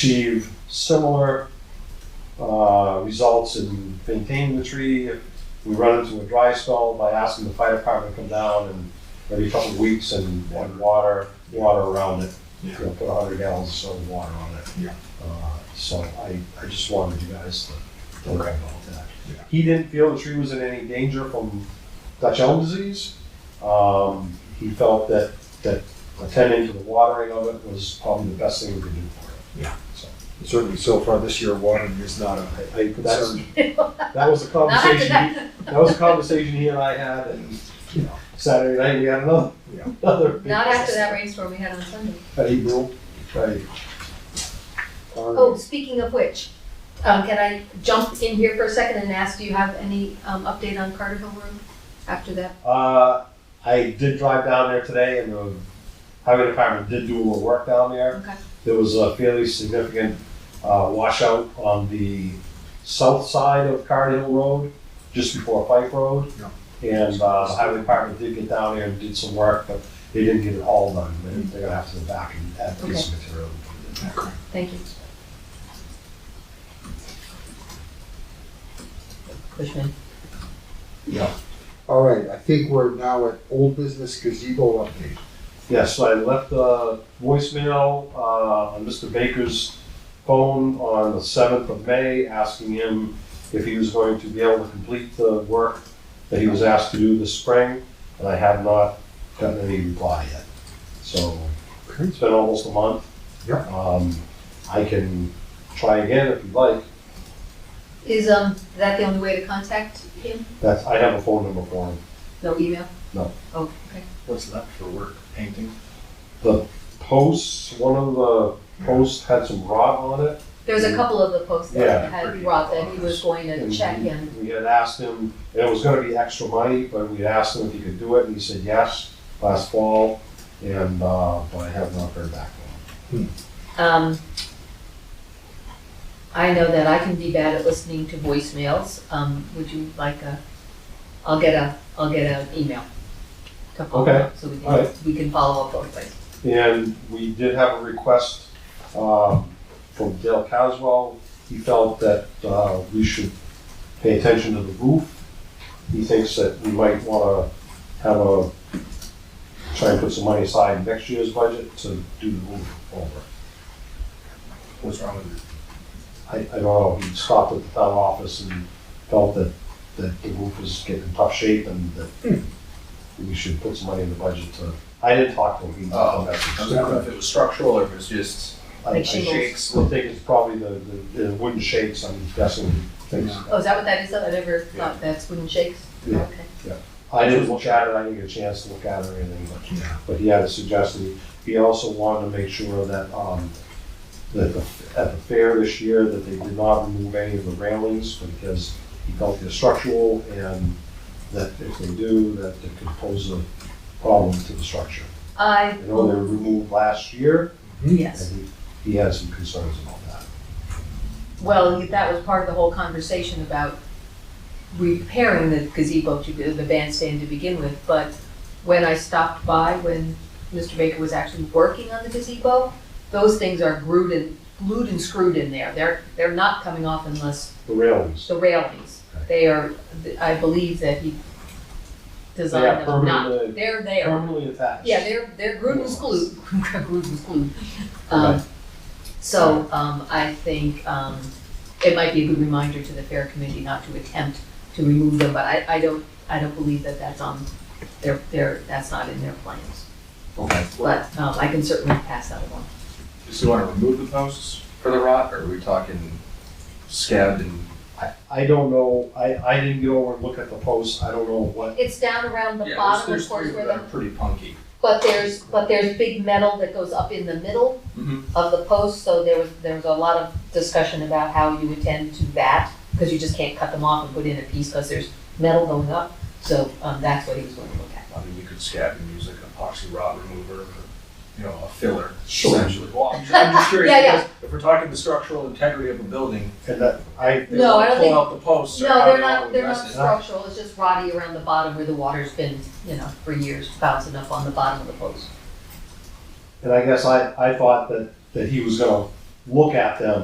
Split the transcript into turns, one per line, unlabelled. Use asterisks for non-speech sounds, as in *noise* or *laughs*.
achieve similar uh, results in maintaining the tree. If we run into a dry spell by asking the fire department to come down and every couple of weeks and and water, water around it. You know, put hundred gallons of soda water on it.
Yeah.
Uh, So I, I just wanted you guys to think
Okay.
about that.
Yeah.
He didn't feel the tree was in any danger from Dutch elm disease. Um, He felt that, that attending to the watering of it was probably the best thing we could do for it.
Certainly so far this year, watering is not a
I,
*laughs*
that's,
concern.
that was the
Not after
conversation,
that.
that was a conversation he and I had, and, you know, Saturday night, we had another,
Yeah.
another. big
Not after that rainstorm we had on Sunday.
At April, right.
Oh, speaking of which, um, can I jump in here for a second and ask, do you have any, um, update on Carterville Road after that?
Uh, I did drive down there today, and the highway department did do a little work down there.
Okay.
There was a fairly significant uh, washout on the south side of Cardinal Road, just before Pike Road.
Yeah.
And uh, the highway department did get down there and did some work, but they didn't get it all done. They- They're gonna have to go back and add a piece of material.
Thank you.
Cushman.
All right, I think we're now at old business gazebo update.
Yeah, so I left a voicemail uh, on Mr. Baker's phone on the 7th of May, asking him if he was going to be able to complete the work that he was asked to do this spring, and I have not gotten any reply yet. So
Okay.
it's been almost a month.
Yeah.
Um, I can try again if you'd like.
Is, um, that the only way to contact him?
That's, I have a phone number for him.
No email?
No.
Oh, okay.
What's that for work? Painting?
Posts, one of the posts had some rot on it,
There was a couple of the posts
Yeah.
that had Rob that he was going to
And
check
we-
in.
We had asked him, and it was gonna be extra money, but we asked him if he could do it, and he said yes last fall, and, uh, but I have not heard back from
Um, I know that I can be bad at listening to voicemails. Um, would you like a, I'll get a, I'll get an email. to follow
Okay.
up, So we
All
can, we can follow up both ways.
him. And we did have a request, um, from Dale Caswell, he felt that, uh, we should pay attention to the roof. He thinks that we might wanna have a, try and put some money aside in next year's budget to do the roof over.
What's wrong with
I, I don't know, he stopped at the town office and felt that, that the roof was getting in tough shape and that we should put some money in the budget to, I didn't talk to him. he-
Oh, I was wondering
I-
if it was structural or if it's just
I-
Like shingles.
shakes.
I think it's probably the, the, the wooden shakes, I'm guessing, things.
Yeah.
Oh, is that what that is? I never thought that's wooden shakes?
Yeah.
Okay.
I didn't look at it, I didn't get a chance to look at it or anything, but,
Yeah.
but he had a suggestion. He also wanted to make sure that, um, that the- at the fair this year, that they did not remove any of the railings because he felt they're structural and that if they do, that it could pose a problem to the structure.
I,
I know they were removed last year
yes.
and he, he has some concerns about that.
Well, that was part of the whole conversation about repairing the gazebo to the the bandstand to begin with, but when I stopped by, when Mr. Baker was actually working on the gazebo, those things are glued and, glued and screwed in there. They're, they're not coming off unless
The railings.
the railings. They are, I believe that he
They are
designed them not.
permanently-
They're there.
Permanently attached.
Yeah, they're, they're glued and
*laughs*
screwed, glued and screwed.
Okay.
Um, so, um, I think, um, it might be a good reminder to the fair committee not to attempt to remove them, but I, I don't, I don't believe that that's on their, their, that's not in their plans.
Okay.
But, um, I can certainly pass that along.
Does he want to remove the posts for the rot or are we talking scabbed and?
I, I don't know, I, I didn't go over and look at the posts, I don't know what,
It's down around the
Yeah,
bottom,
there's-
of course,
there's three
where
that
the,
are Pretty punky.
but there's, but there's big metal that goes up in the middle.
Mm-hmm.
Of the post, so there was, there was a lot of discussion about how you attend to that, because you just can't cut them off and put in a piece, because there's metal going up. So, um, that's what he was going to look at.
I mean, you could scab and use like an epoxy rot remover, or, you know, a filler
Sure.
essentially. Well,
*laughs*
I'm just- I'm just curious,
Yeah, yeah.
because if we're talking the structural integrity of a building,
and that, I,
they
No, I
won't
don't
pull
think-
out the posts or
No,
how
they're
they all
not, they're not
address it.
structural, it's just rotty around the bottom where the water's been, you know, for years bouncing up on the bottom of the post.
And I guess I, I thought that, that he was gonna look at them